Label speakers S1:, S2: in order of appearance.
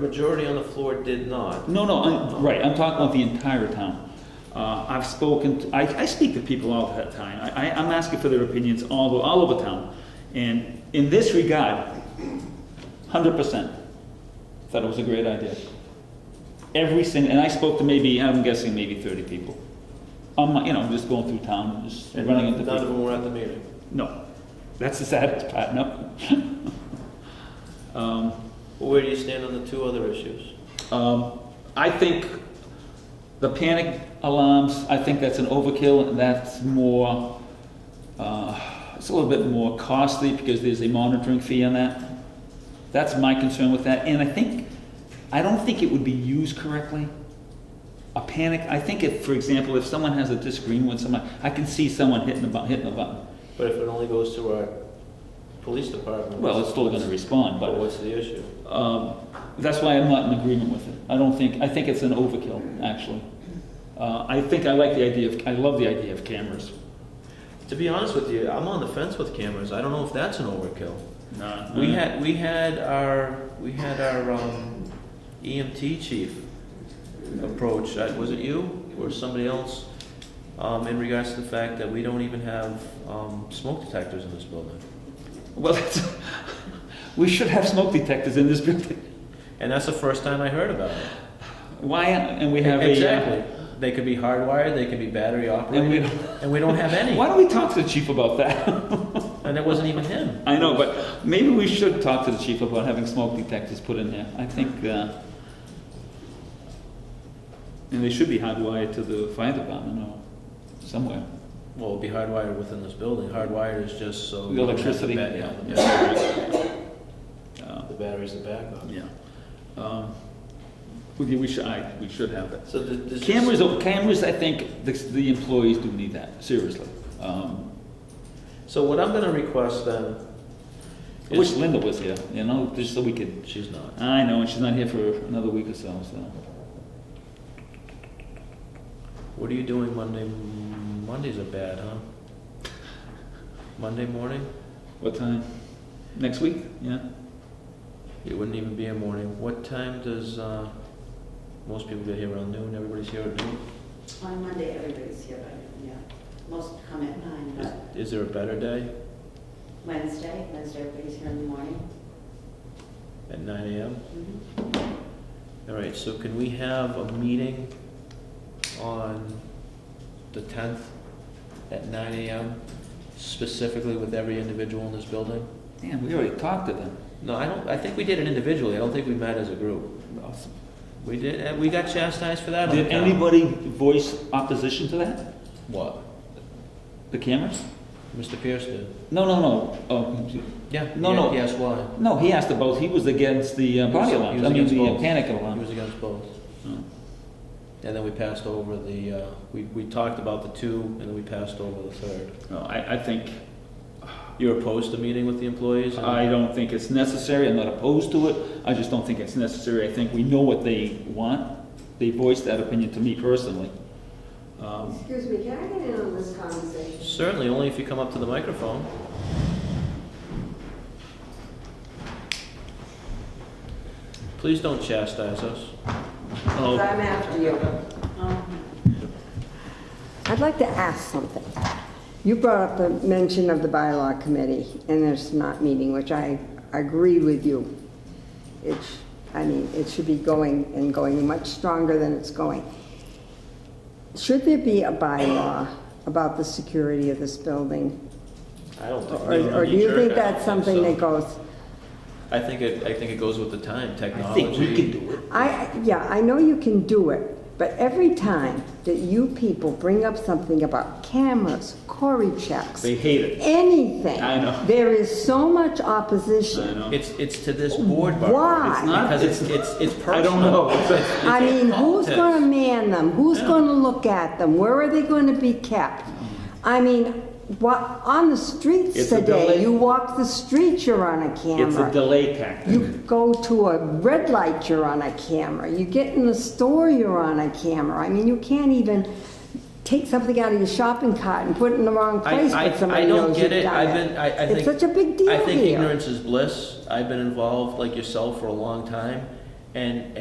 S1: The majority on the floor did not.
S2: No, no, I'm, right, I'm talking about the entire town. Uh, I've spoken, to- I, I speak to people all the time, I, I- I'm asking for their opinions all, o- all over town. And in this regard, hundred percent, thought it was a great idea. Every single, and I spoke to maybe, I'm guessing maybe thirty people. Um, you know, just going through town, just
S1: And
S2: running into
S1: none of
S2: people.
S1: them were at the meeting.
S2: No, that's the saddest part, no. Um,
S1: Well, Where do you stand on the two other issues?
S2: Um, I think the panic alarms, I think that's an overkill, and that's more, uh, it's a little bit more costly because there's a monitoring fee on that. That's my concern with that, and I think, I don't think it would be used correctly. A panic, I think if, for example, if someone has a disagreement with someone, I can see someone hitting the button, hitting the button.
S1: But if it only goes to our police department.
S2: Well, it's still gonna respond,
S1: But
S2: but
S1: what's the issue?
S2: Um, That's why I'm not in agreement with it. I don't think, I think it's an overkill, actually. Uh, I think I like the idea of, I love the idea of cameras.
S1: To be honest with you, I'm on the fence with cameras. I don't know if that's an overkill.
S2: No,
S1: We had, we had our, we had our um, EMT chief approach, Uh, was it you or somebody else? Um, in regards to the fact that we don't even have, um, smoke detectors in this building.
S2: Well, that's, we should have smoke detectors in this building.
S1: And that's the first time I heard about it.
S2: Why, and we have a. uh,
S1: Exactly. They could be hardwired, they could be battery
S2: And we,
S1: operated,
S2: don't-
S1: and we don't have any.
S2: why don't we talk to the chief about that?
S1: And it wasn't even him.
S2: I know, but maybe we should talk to the chief about having smoke detectors put in there. I think, uh, and they should be hardwired to the fire department or somewhere.
S1: Well, it'd be hardwired within this building. Hardwired is just so.
S2: The electricity.
S1: The bat- yeah,
S2: Uh,
S1: The batteries, the backup.
S2: Yeah. Um, We we should, I, we should have it.
S1: So the- this. is-
S2: Cameras, oh, cameras, I think the, the employees do need that, seriously. Um,
S1: So what I'm gonna request then.
S2: I wish
S1: is-
S2: Linda was here, you know, just so we could,
S1: She's not.
S2: I know, and she's not here for another week or so, so.
S1: What are you doing Monday? Mondays are bad, huh? Monday morning?
S2: What time? Next week? Yeah?
S1: It wouldn't even be a morning. What time does, uh, most people get here around noon? Everybody's here at noon?
S3: On Monday, everybody's here, but, yeah, most come at nine,
S1: Is,
S3: but
S1: is there a better day
S3: Wednesday, Wednesday, everybody's here in the morning.
S1: at nine AM?
S4: Mm-hmm.
S3: Mhm.
S1: All right, so can we have a meeting on the tenth at nine AM specifically with every individual in this building?
S2: Damn, we already talked to them.
S1: No, I don't, I think we did it individually. I don't think we met as a group. We did, and we got chastised for that on the
S2: Uh, Did
S1: town.
S2: anybody voice opposition to that?
S1: What?
S2: The cameras?
S1: Mr. Pierce did.
S2: No, no, no. Oh,
S1: Yeah.
S2: No, no.
S1: Yes, why?
S2: No, he asked about, he was against the uh,
S1: He was-
S2: body
S1: he
S2: alarm,
S1: was
S2: I mean,
S1: against
S2: the uh,
S1: both.
S2: panic
S1: He
S2: alarm.
S1: was against both.
S2: Oh.
S1: And then we passed over the, uh, we, we talked about the two and then we passed over the third.
S2: No, I, I think,
S1: You're opposed to meeting with the employees? and-
S2: I don't think it's necessary, I'm not opposed to it, I just don't think it's necessary, I think we know what they want, they voiced that opinion to me personally. Um,
S4: Excuse me, can I get in on this conversation?
S1: Certainly, only if you come up to the microphone. Please don't chastise us.
S4: 'Cause
S2: oh,
S4: I'm after you.
S3: Um,
S4: I'd like to ask something. You brought up the mention of the bylaw committee and it's not meeting, which I agree with you. It's, I mean, it should be going and going much stronger than it's going. Should there be a bylaw about the security of this building?
S1: I don't think.
S4: Or or do you think that's something that goes,
S1: I think it, I think it goes with the time,
S2: I
S1: technology.
S2: think we can do it.
S4: I, yeah, I know you can do it, but every time that you people bring up something about cameras, Cory checks,
S2: They hate it,
S4: anything.
S2: I know.
S4: There is so much
S2: I
S4: opposition.
S2: know.
S1: It's, it's to this board, Barbara.
S4: Oh, Why?
S1: It's not, because it's, it's, it's personal.
S2: I don't know.
S4: I mean, who's gonna man them? Who's gonna look at them? Where are they gonna be kept? I mean, what, on the streets
S2: It's a delay.
S4: today, you walk the streets, you're on a
S2: It's a
S4: camera.
S2: delay tactic.
S4: You go to a red light, you're on a camera. You get in the store, you're on a camera. I mean, you can't even take something out of your shopping cart and put it in the wrong place,
S1: I,
S4: but
S1: I, I
S4: somebody
S1: don't
S4: knows you've
S1: get
S4: done
S1: it.
S4: it.
S1: I've been, I, I think.
S4: It's such a big deal
S1: I think
S4: here.
S1: ignorance is bliss. I've been involved like yourself for a long time. And